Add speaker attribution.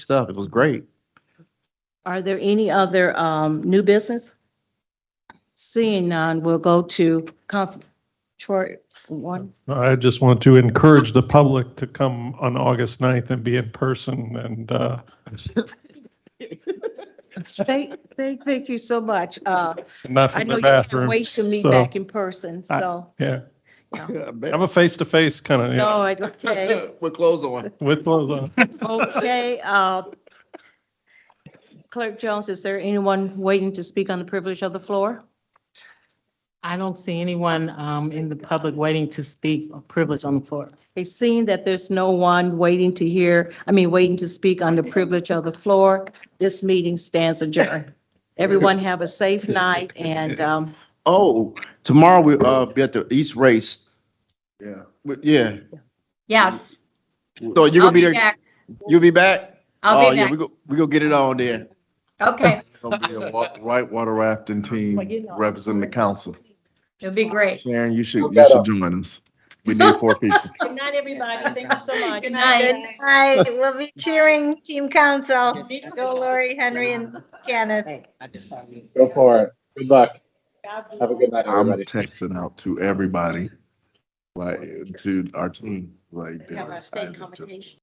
Speaker 1: stuff. It was great.
Speaker 2: Are there any other um, new business? Seeing none, we'll go to Council Troy one.
Speaker 3: I just want to encourage the public to come on August 9th and be in person and, uh,
Speaker 2: Thank, thank, thank you so much. Uh,
Speaker 3: not
Speaker 2: I
Speaker 3: from
Speaker 2: know
Speaker 3: the
Speaker 2: you can't
Speaker 3: bathroom.
Speaker 2: wait to meet
Speaker 3: so-
Speaker 2: back in person, so.
Speaker 3: Yeah, I'm
Speaker 1: We're
Speaker 3: a face-to-face kind of, yeah,
Speaker 2: No, I- okay,
Speaker 1: close on.
Speaker 3: with clothes on.
Speaker 2: okay. uh, Clerk Jones, is there anyone waiting to speak on the privilege of the floor?
Speaker 4: I don't see anyone um, in the public waiting to speak or privilege on the floor.
Speaker 2: Okay, seeing that there's no one waiting to hear, I mean, waiting to speak on the privilege of the floor, this meeting stands adjourned. Everyone have a safe night and, um,
Speaker 1: Oh, tomorrow we, uh, be at the East Race. Yeah. Yeah.
Speaker 5: Yes,
Speaker 1: So you're
Speaker 5: I'll
Speaker 1: gonna be
Speaker 5: be
Speaker 1: there,
Speaker 5: back.
Speaker 1: you'll be back?
Speaker 5: I'll
Speaker 1: Oh,
Speaker 5: be
Speaker 1: yeah,
Speaker 5: back.
Speaker 1: we go, we go get it on there.
Speaker 5: Okay,
Speaker 6: Gonna be a wa- whitewater rafting team representing the council.
Speaker 5: it'll be great.
Speaker 6: Sharon, you should, you should join us. We need four people.
Speaker 2: Good night, everybody. Thank you so much.
Speaker 5: Good night.
Speaker 7: Hi, we'll be cheering Team Council. Go Lori, Henry, and Kenneth.
Speaker 8: Go for it. Good luck. Have a good night,
Speaker 6: I'm
Speaker 8: everybody.
Speaker 6: texting out to everybody, like, to our team, like.
Speaker 2: Have our state
Speaker 6: just-
Speaker 2: convocation.